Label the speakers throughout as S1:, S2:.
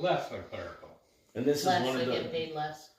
S1: less than clerical.
S2: And this is
S3: Less,
S2: one
S3: they
S2: of
S3: get
S2: the,
S3: paid less.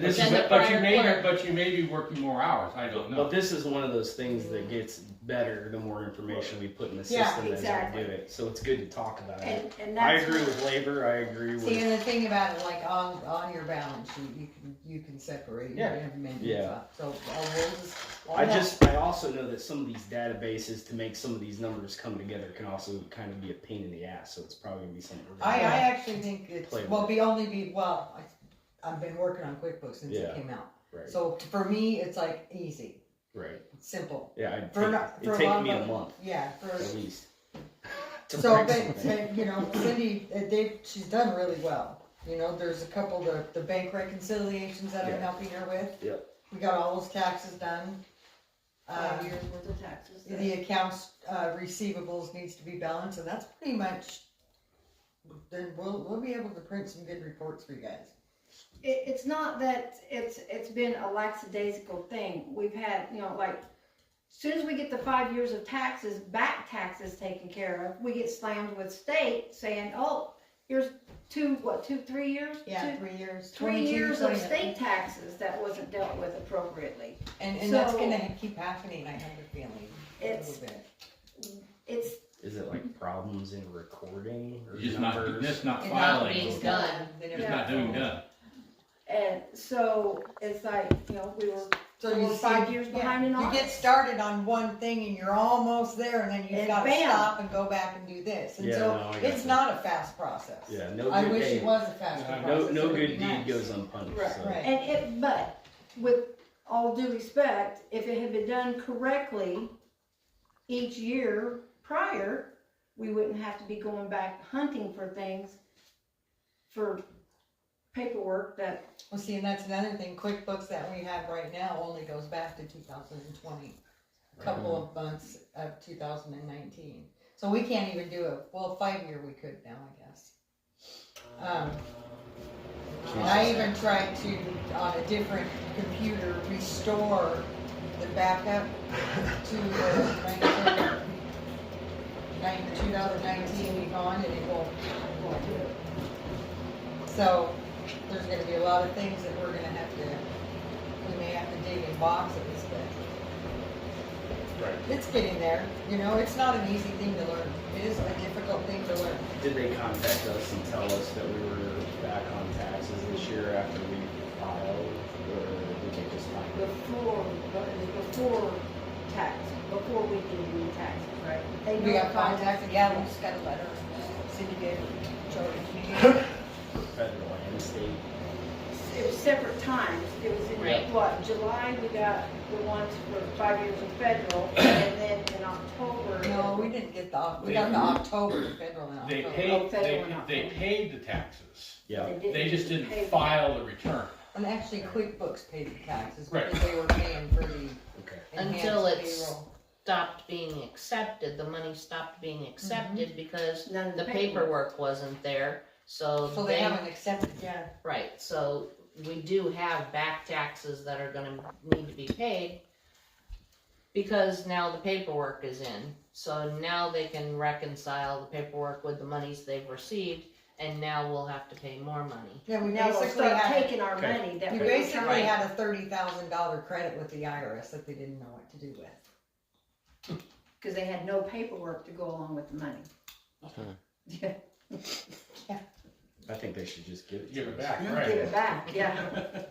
S1: But
S2: this is,
S3: Then the
S1: but you
S3: prior
S1: may,
S3: clerk-
S1: but you may be working more hours, I don't
S2: but
S1: know.
S2: this is one of those things that gets better the more information we put in the
S4: Yeah,
S2: system as we
S4: exactly.
S2: do it. So it's good to talk about it.
S4: And, and
S2: Uh, I
S4: that's.
S2: agree with labor, I agree
S5: See,
S2: with,
S5: and the thing about it, like on, on your balance sheet, you can, you can separate it, you
S2: Yeah.
S5: have amendments
S2: Yeah.
S5: up, so, oh, we'll just.
S2: I just, I also know that some of these databases to make some of these numbers come together can also kind of be a pain in the ass, so it's probably gonna be something. we're gonna
S5: I, I
S2: have to
S5: actually think it's,
S2: Play with
S5: well,
S2: it.
S5: be only be, well, I, I've been working on QuickBooks since
S2: Yeah.
S5: it came out,
S2: Right,
S5: so for me, it's like easy,
S2: right.
S5: simple.
S2: Yeah, I'd
S5: For not-
S2: take, it'd
S5: for a
S2: take
S5: lot
S2: me a
S5: of-
S2: month
S5: Yeah, for,
S2: at least. to
S5: so,
S2: write
S5: but,
S2: something.
S5: uh, you know, Cindy, uh, they, she's done really well, you know, there's a couple, the, the bank reconciliations that
S2: Yeah.
S5: I'm helping her with.
S2: Yep.
S5: We got all those taxes done.
S4: Five
S5: Um,
S4: years worth of taxes.
S5: the accounts uh, receivables needs to be balanced, and that's pretty much. Then we'll we'll be able to print some good reports for you guys.
S4: It, it's not that it's, it's been a lackadaisical thing. We've had, you know, like, soon as we get the five years of taxes, back taxes taken care of, we get slammed with state saying, oh, here's two, what, two, three years? Two-
S5: three years.
S4: Three years of state taxes that wasn't dealt with appropriately.
S5: and and that's
S4: so-
S5: gonna keep happening. I have a feeling. a
S4: It's,
S5: little bit.
S4: it's,
S2: Is it like problems in recording or
S1: It's Just not,
S2: numbers?
S1: it's not
S5: It's
S3: not
S1: filing,
S3: being- It's done.
S1: it's not doing done.
S4: and so, it's like, you know, we were
S5: So you
S4: We're five
S5: see-
S4: years behind in
S5: You get
S4: audits.
S5: started on one thing and you're almost there, and then you've
S4: And
S5: got to
S4: bam.
S5: stop and go back and do this. And
S2: Yeah,
S5: so
S2: no, I got
S5: it's
S2: you.
S5: not a fast process.
S2: Yeah, no
S5: I
S2: good
S5: wish
S2: deed.
S5: it was a fast
S1: No-
S5: process.
S2: No,
S5: It
S2: no
S5: would be
S2: good
S5: nice.
S2: deed goes unpunished.
S4: Right,
S2: so.
S5: right.
S4: And it, but with all due respect, if it had been done correctly each year prior, we wouldn't have to be going back hunting for things for paperwork that,
S5: Well, see, and that's another thing, QuickBooks that we have right now only goes back to two thousand and twenty, a couple of months of two thousand and nineteen. So we can't even do a, well, five-year we could now, I guess. Um, and I even tried to, on a different computer, restore the backup to uh, two thousand nineteen gone, and it won't, won't do it. So, there's gonna be a lot of things that we're gonna have to, we may have to dig in boxes, but.
S2: Right.
S5: It's getting there, you know, it's not an easy thing to learn, it is a difficult thing to learn.
S2: Did they contact us and tell us that we were back on taxes this year after we filed, or did they just find it?
S4: before, before tax, before we did the taxes, right? They
S5: We got
S4: notified us.
S5: contacted, yeah, we just got a letter, city gave, Jody.
S2: federal and state?
S4: It was separate times, it was
S3: Right.
S4: in, what, July, we got the ones for five years of federal, and then in October.
S5: No, we didn't get the, we got the October, federal in
S1: They
S5: October.
S1: paid,
S4: federal
S1: they,
S4: or not
S1: they
S4: federal.
S1: paid the taxes,
S2: Yeah,
S4: didn't
S1: they just didn't
S4: pay-
S1: file the return.
S5: And actually QuickBooks paid the taxes,
S1: Right.
S5: because they were paying for the
S2: okay.
S3: Until
S5: enhanced
S3: it's-
S5: payroll.
S3: Stopped being accepted, the money stopped being accepted because
S4: None of
S3: the paperwork wasn't there, so
S5: So they
S3: they,
S5: haven't accepted, yeah,
S3: right, so we do have back taxes that are gonna need to be paid because now the paperwork is in, so now they can reconcile the paperwork with the monies they've received, and now we'll have to pay more money.
S5: yeah, we
S4: Now they'll
S5: basically
S4: start
S5: had.
S4: taking our
S2: Okay.
S4: money that
S5: You
S4: we
S5: basically
S3: Right.
S5: had a thirty thousand dollar credit with the IRS that they didn't know what to do with.
S4: because they had no paperwork to go along with the money. Yeah,
S2: I think they should just give it
S1: Give
S2: to
S1: it
S2: us.
S1: back,
S4: give
S1: right?
S4: it back, yeah.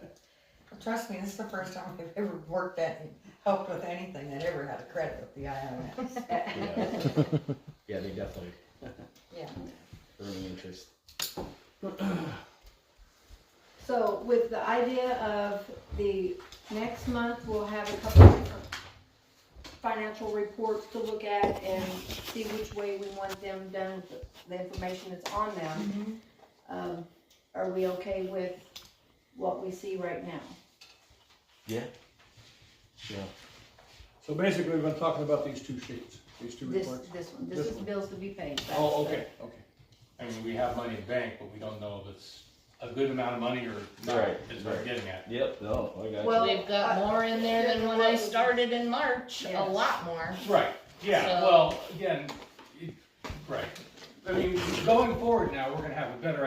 S5: Trust me, this is the first time I've ever worked at, helped with anything that ever had a credit with the IRS.
S2: Yeah. Yeah, they definitely.
S5: Yeah.
S2: Earning interest.
S4: So with the idea of the next month, we'll have a couple of different financial reports to look at and see which way we want them done, with the- the information that's on them. Um, are we okay with what we see right now?
S6: So basically, we've been talking about these two sheets, these two
S4: This,
S6: reports.
S4: this one, this
S6: This
S4: is
S6: one.
S4: bills to be paid. That's
S6: Oh,
S4: the-
S6: okay, okay.
S1: I mean, we have money in bank, but we don't know if it's a good amount of money or not,
S2: Right,
S1: is what
S2: right.
S1: I'm getting at.
S2: Yep, no, I got
S4: Well,
S3: We've got
S4: I-
S3: more in there than when I started in March, a
S4: Yes.
S3: lot more.
S1: Right, yeah,
S3: So-
S1: well, again, it- right, I mean, going forward now, we're gonna have a better